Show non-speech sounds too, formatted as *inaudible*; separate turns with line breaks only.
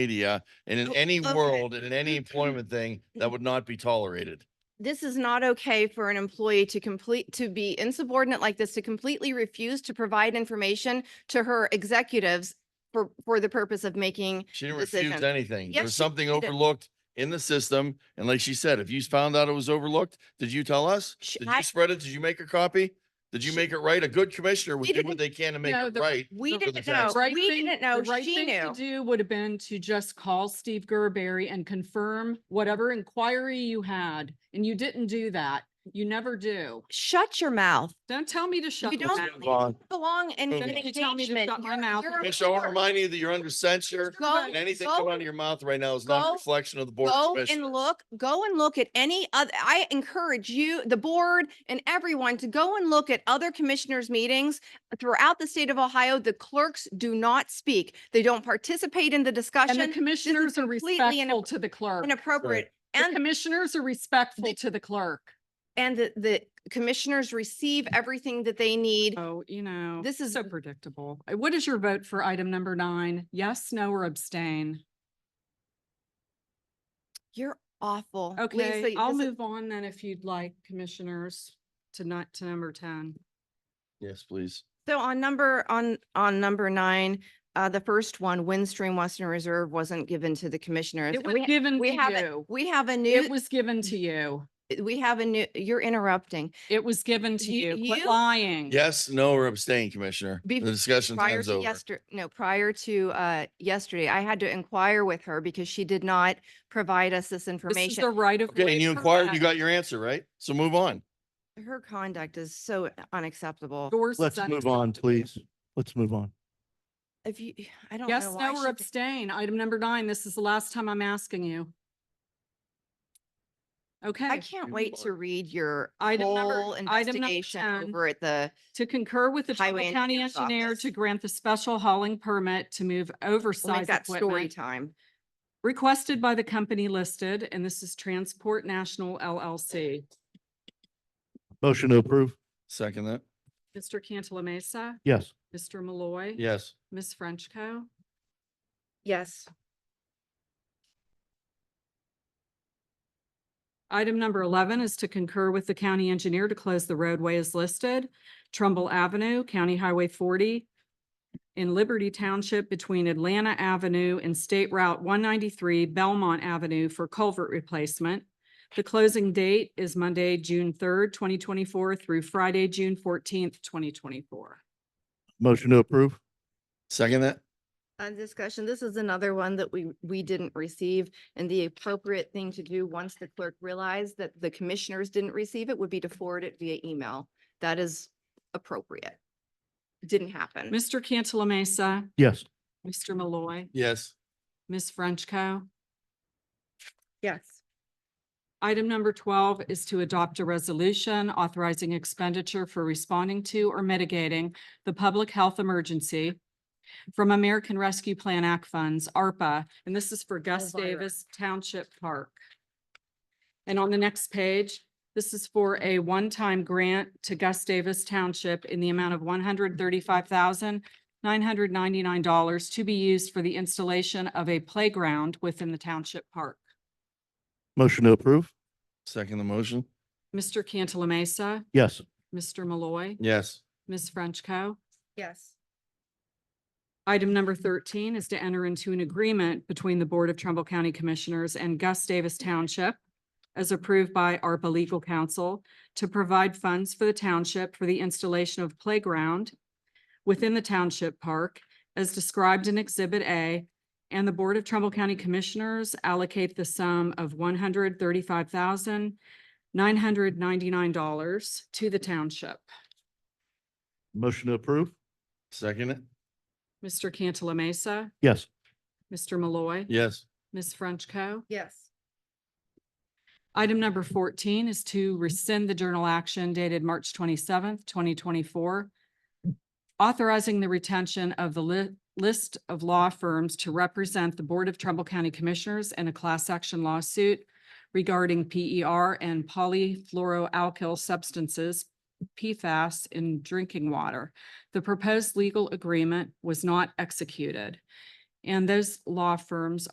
media and in
Oh,
any
okay.
world and in
Mm-hmm.
any employment thing,
*laughs*
that would not be tolerated.
this is not okay for an employee to complete, to be insubordinate like this, to completely refuse to provide information to her executives for, for the purpose of making,
She didn't refuse
Decision.
anything.
Yes,
There's
she
something
did it.
overlooked in the system. And like she said, if you found out it was overlooked, did you tell us?
Sh-
Did
I-
you spread it? Did you make a copy? Did you
She-
make it right? A good commissioner would
We
do what
didn't
they can to make
know
it
the-
right.
we
for the
didn't know,
tax.
right
Oh, we
thing-
didn't
the
know,
right
she
thing to
knew.
Do would have been to just call Steve Gerberry and confirm whatever inquiry you had, and you didn't do that. You never do.
Shut your mouth.
Don't tell me to shut.
You
my
don't-
mouth.
Move on.
Belong in
Then
an
you tell me to
engagement.
shut my
You're-
mouth.
you're a
Commissioner, I want to
leader.
remind you that you're under censure
Go-
and anything
go-
coming out of your mouth right now is not a
go-
reflection of the board. of
Go
Commissioners.
and look, go and look at any other, I encourage you, the board and everyone to go and look at other commissioners' meetings throughout the state of Ohio. The clerks do not speak. They don't participate in the
And the
discussion.
commissioners are
completely inapp-
respectful to the clerk.
Inappropriate.
The
And,
commissioners are respectful to the clerk.
and the, the commissioners receive everything that they need.
Oh, you know.
This is-
So predictable. Uh, What is your vote for item number nine? Yes, no, or abstain?
You're awful.
Okay,
Lisa,
I'll
this is-
move on then if you'd like, commissioners, to not, to number ten.
Yes, please.
So on number, on, on number nine, uh, the first one, Windstream Western Reserve wasn't given to the commissioners.
It
And we
was
ha-
given to
We have, a-
you.
we have a new.
It was given to you.
we have a new, you're interrupting.
It was given to
You-
you. Quit
you-
lying.
Yes, no, or abstain, Commissioner. The
Bef-
discussion
Prior
time's
to
over.
yesterday, no, prior to uh yesterday, I had to inquire with her because she did not provide us this
This is the
information.
right of.
Okay,
way
and you
for
inquired, you
us.
got your answer, right? So move on.
Her conduct is so unacceptable.
Yours is unacceptable.
Let's move on.
If you, I don't
Yes,
know why
no, or
she did-
abstain. Item number nine. This is the last time I'm asking you.
I
Okay,
can't
You
wait
are-
to read your
Item number-
whole
item number
investigation
10.
over at the,
to concur with the
Highway
Trumbull County
Engineer's
Engineer
Office.
to grant the special hauling permit to move
we'll make
oversized
that story
equipment
time.
requested by the company listed, and this is Transport National LLC.
Motion to approve?
Second that.
Mr. Cantala Mesa,
Yes.
Mr. Malloy.
Yes.
Ms. Frenchco.
Yes.
Item number eleven is to concur with the county engineer to close the roadway as listed, Trumbull Avenue, County Highway forty, in Liberty Township between Atlanta Avenue and State Route one ninety-three Belmont Avenue for culvert replacement. The closing date is Monday, June third, twenty twenty-four through Friday, June fourteenth, twenty twenty-four.
Motion to approve?
Second that.
On discussion, this is another one that we, we didn't receive. And the appropriate thing to do, once the clerk realized that the commissioners didn't receive it, would be to forward it via email. That is appropriate. It Didn't happen.
Mr. Cantala Mesa,
Yes.
Mr. Malloy,
Yes.
Ms. Frenchco.
Yes.
Item number twelve is to adopt a resolution authorizing expenditure for responding to or mitigating the public health emergency from American Rescue Plan Act funds, ARPA, and this is for Gus
Elvira.
Davis Township Park. And on the next page, this is for a one-time grant to Gus Davis Township in the amount of one hundred thirty-five thousand nine hundred ninety-nine dollars to be used for the installation of a playground within the township park.
Motion to approve?
Second the motion.
Mr. Cantala Mesa.
Yes.
Mr. Malloy,
Yes.
Ms. Frenchco.
Yes.
Item number thirteen is to enter into an agreement between the Board of Trumbull County Commissioners and Gus Davis Township as approved by ARPA Legal Counsel to provide funds for the township for the installation of playground within the township park as described in Exhibit A, and the Board of Trumbull County Commissioners allocate the sum of one hundred thirty-five thousand nine hundred ninety-nine dollars to the township.
Motion to approve?
Second it.
Mr. Cantala Mesa.
Yes.
Mr. Malloy.
Yes.
Ms. Frenchco.
Yes.
Item number fourteen is to rescind the journal action dated March twenty-seventh, twenty twenty-four, authorizing the retention of the li- list of law firms to represent the Board of Trumbull County Commissioners in a class action lawsuit regarding PER and polyfluoroalkyl substances, PFAS, in drinking water. The proposed legal agreement was not executed. And those law firms